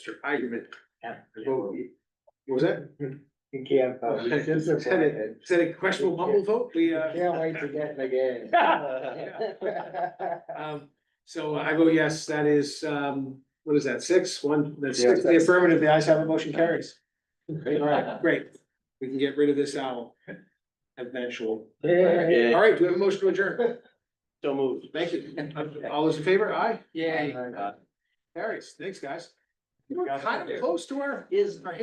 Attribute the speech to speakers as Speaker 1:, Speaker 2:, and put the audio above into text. Speaker 1: argument.
Speaker 2: You
Speaker 1: vote. Was that?
Speaker 2: can't. uh,
Speaker 1: Is that a- is that a questionable mumble vote? We, uh,
Speaker 2: Can't wait to get in the game.
Speaker 1: um, so I vote yes, that is, um, what is that, six, one, that's
Speaker 2: Yeah.
Speaker 1: six, the affirmative, the ayes have a motion carries. All right, great. We can get rid of this owl. Eventual. All right, do we have a motion to adjourn?
Speaker 3: So moved.
Speaker 1: Thank you. All those in favor? Aye.
Speaker 2: Yay.
Speaker 1: Carries. Thanks, guys. We were kind of close to our.
Speaker 3: Is.
Speaker 1: our